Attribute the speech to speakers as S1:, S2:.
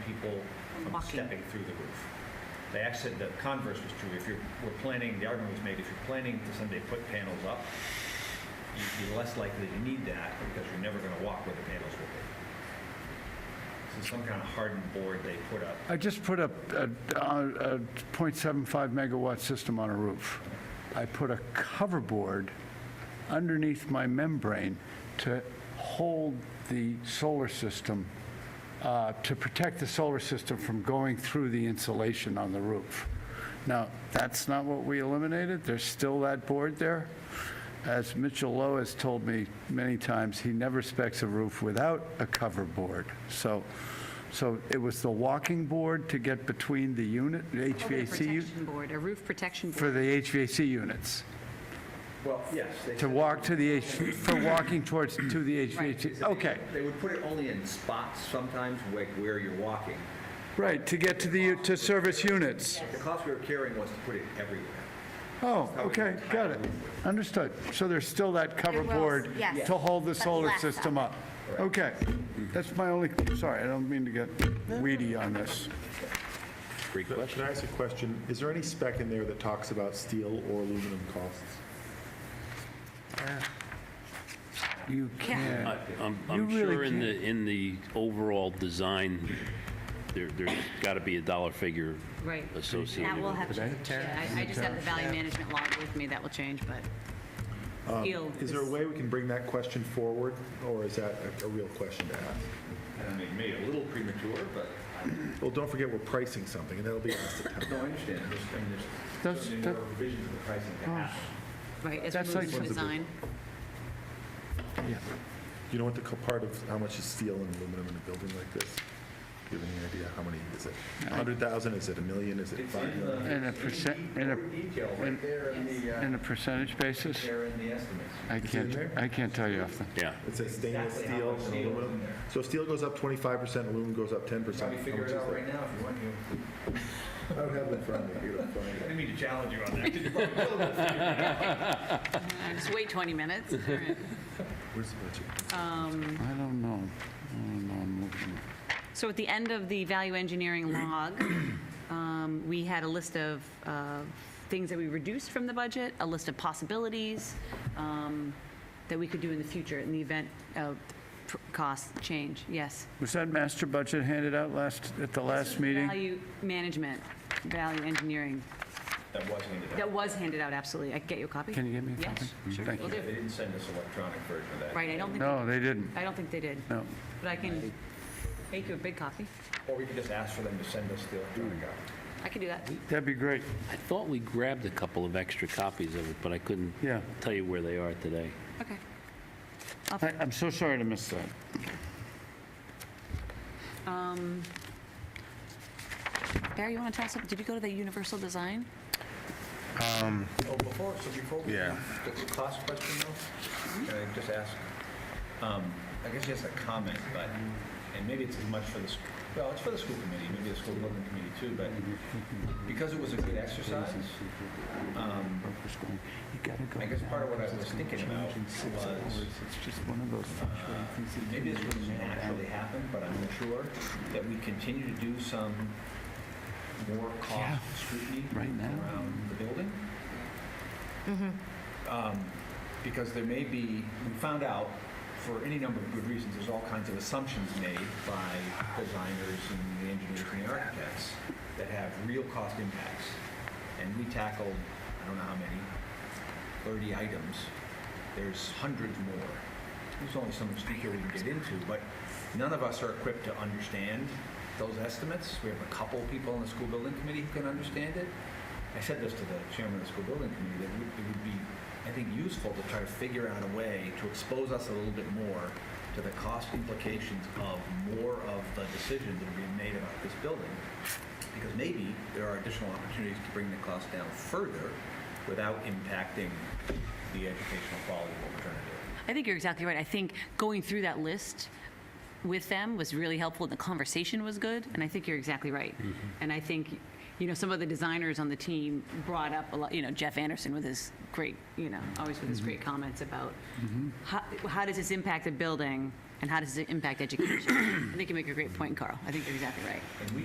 S1: people from
S2: Walking.
S1: stepping through the roof. They actually, the converse was true. If you're, we're planning, the argument was made, if you're planning to someday put panels up, you'd be less likely to need that because you're never going to walk where the panels will be. So some kind of hardened board they put up.
S3: I just put up a, a a 0.75 megawatt system on a roof. I put a cover board underneath my membrane to hold the solar system, uh, to protect the solar system from going through the insulation on the roof. Now, that's not what we eliminated. There's still that board there. As Mitchell Lowe has told me many times, he never specs a roof without a cover board. So, so it was the walking board to get between the unit, the
S2: A
S3: HVAC, u-
S2: protection board, a roof protection
S3: for
S2: board.
S3: the HVAC units,
S1: Well, yes. they
S3: to
S1: said-
S3: walk to the, H for walking towards, to the
S1: they
S3: HVAC.
S1: said they-
S3: Okay,
S1: They would put it only in spots sometimes where, where you're walking.
S3: right, to get to the, u- to service units.
S1: The cost we were carrying was to put it everywhere.
S3: Oh, okay, got it. Understood. So there's still that
S2: There
S3: cover
S2: was,
S3: board
S2: yes.
S3: to hold the
S2: But
S3: solar
S2: less of
S3: system up? Okay. That's my only, sorry, I don't mean to get weedy on this.
S4: Great
S5: Can I ask a question? Is there any spec in there that talks about steel or aluminum costs?
S3: You can't.
S4: I'm,
S3: You
S4: I'm
S3: really
S4: sure in
S3: can't-
S4: the, in the overall design, there, there's got to be a dollar figure
S2: Right.
S4: associated
S2: That will
S4: with it.
S2: have to change. Yeah, I I just have the value management log with me, that will change, but
S3: Um,
S2: steel
S5: Is there a way we can bring that question forward, or is that a- a real question to ask?
S1: I mean, maybe a little premature, but
S5: Well, don't forget, we're pricing something, and that'll be asked at
S1: no, I
S5: town.
S1: understand. There's, I mean, there's
S3: That's-
S1: certainly
S3: that-
S1: more revisions of the pricing to happen.
S2: Right, as
S3: That's
S2: we
S3: like
S2: move
S3: one
S2: to
S3: of the
S2: design.
S5: You know what the co- part of, how much is steel and aluminum in a building like this? Do you have any idea? How many is it? 100,000? Is it a million? Is it
S1: It's
S5: 5
S1: in the,
S5: million?
S3: And a percent, and a,
S1: detail right there in the, uh,
S3: and a percentage basis?
S1: there in the estimates.
S3: I can't, I can't tell you off the,
S4: Yeah,
S5: It says stainless
S1: Exactly how
S5: steel
S1: much
S5: and
S1: steel is in
S5: aluminum.
S1: there.
S5: So steel goes up 25%, aluminum goes up 10%.
S1: Probably
S5: How
S1: figure
S5: much
S1: it
S5: is
S1: out
S5: that?
S1: right now if you want to.
S5: I don't have it in front of me. You don't find it.
S1: I didn't mean to challenge you on that. 'cause you probably will.
S2: Uh, Just wait 20 minutes. All right.
S5: Where's the budget?
S3: I don't know. I don't know, I'm looking.
S2: So at the end of the value engineering log, um, we had a list of uh, things that we reduced from the budget, a list of possibilities um, that we could do in the future in the event of pr- cost change, yes.
S3: Was that master budget handed out last, at the last meeting?
S2: Value management, value engineering,
S1: That was handed out.
S2: that was handed out, absolutely. I can get you a copy?
S3: Can you get me a copy?
S2: Yes, sure,
S3: Thank
S2: will
S3: you.
S2: do.
S1: They didn't send us electronic version of that.
S2: Right, I don't think,
S3: No, they didn't.
S2: I don't think they did,
S3: No.
S2: but I can make you a big copy.
S1: Or we could just ask for them to send us the electronic copy.
S2: I can do that.
S3: That'd be great.
S4: I thought we grabbed a couple of extra copies of it, but I couldn't
S3: Yeah.
S4: tell you where they are today.
S2: Okay.
S3: I- I'm so sorry to miss that.
S2: Barry, you want to tell us, something? did you go to the universal design?
S1: Oh, before, so before. we-
S5: Yeah.
S1: The cost question though, can I just ask? um, I guess just a comment, but, and maybe it's as much for the, s- well, it's for the school committee, maybe the school building committee too, but because it was a good exercise, um, I guess part of what I was thinking about was maybe this wouldn't naturally happen, but I'm sure that we continue to do some more
S3: Yeah.
S1: cost scrutiny
S3: Right now.
S1: around the building. Um, Because there may be, we found out, for any number of good reasons, there's all kinds of assumptions made by designers and the engineers and the architects that have real cost impacts. And we tackled, I don't know how many, 30 items. There's hundreds more. There's only so much detail we can get into, but none of us are equipped to understand those estimates. We have a couple people on the school building committee who can understand it. I said this to the chairman of the school building committee, that it would- it would be, I think, useful to try to figure out a way to expose us a little bit more to the cost implications of more of the decisions that are being made about this building because maybe there are additional opportunities to bring the cost down further without impacting the educational quality of what we're trying to do.
S2: I think you're exactly right. I think going through that list with them was really helpful, and the conversation was good, and I think you're exactly right. And I think, you know, some of the designers on the team brought up a lot, you know, Jeff Anderson with his great, you know, always with his great comments about how, how does this impact the building? and how does it impact education? I think you make a great point, Carl. I think you're exactly right.
S1: And we